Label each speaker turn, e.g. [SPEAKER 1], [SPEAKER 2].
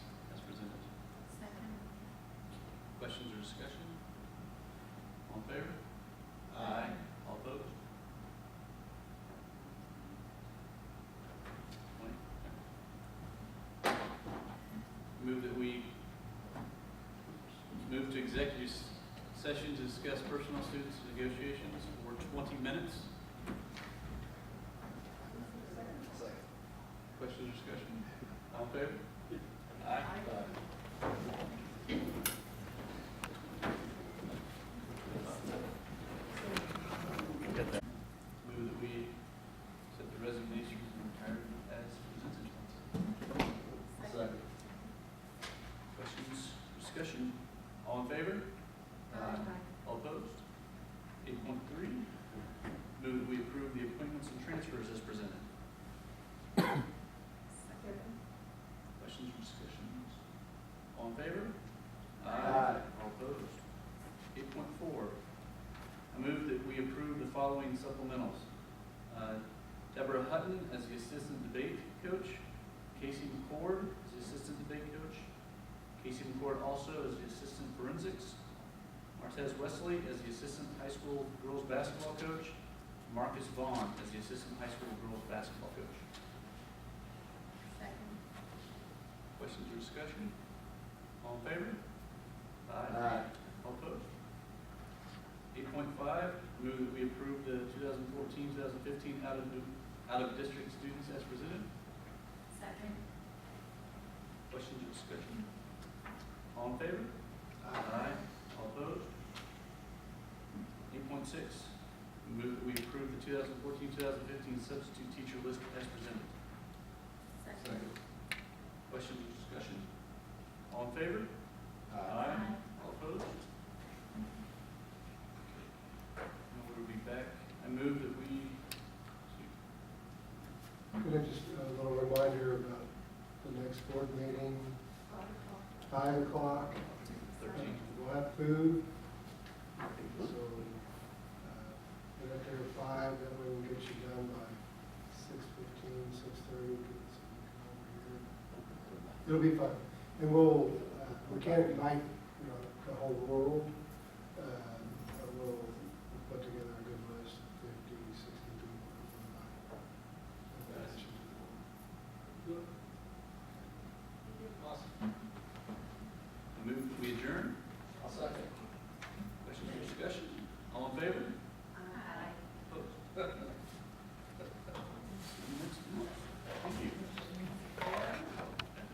[SPEAKER 1] questions or discussion? All in favor?
[SPEAKER 2] Aye.
[SPEAKER 1] All opposed? Twenty? Okay. Move that we move to executive s- session to discuss personal students negotiations for twenty minutes. Questions or discussion? All in favor? Aye. Move that we accept the resignation from retirement as presented.
[SPEAKER 2] Second.
[SPEAKER 1] Questions, discussion? All in favor? All opposed? Eight point three, move that we approve the appointments and transfers as presented. Questions or discussions? All in favor?
[SPEAKER 2] Aye.
[SPEAKER 1] All opposed? Eight point four, I move that we approve the following supplementals. Uh, Deborah Hutton as the assistant debate coach, Casey McCord as the assistant debate coach, Casey McCord also as the assistant forensics, Martez Wesley as the assistant high school girls basketball coach, Marcus Vaughn as the assistant high school girls basketball coach. Questions or discussion? All in favor?
[SPEAKER 2] Aye.
[SPEAKER 1] All opposed? Eight point five, move that we approve the 2014-2015 out of, out of district students as presented. Questions or discussion? All in favor? All opposed? Eight point six, move that we approve the 2014-2015 substitute teacher list as presented. Questions or discussion? All in favor? All opposed? Now we'll be back. I move that we,
[SPEAKER 3] And then just uh, a little reminder about the next board meeting, five o'clock.
[SPEAKER 1] thirteen,
[SPEAKER 3] We'll have food, so, uh, get up there at five, that way we'll get you done by six fifteen, six thirty, get some over here. It'll be fun, and we'll, uh, we can't invite, you know, the whole world,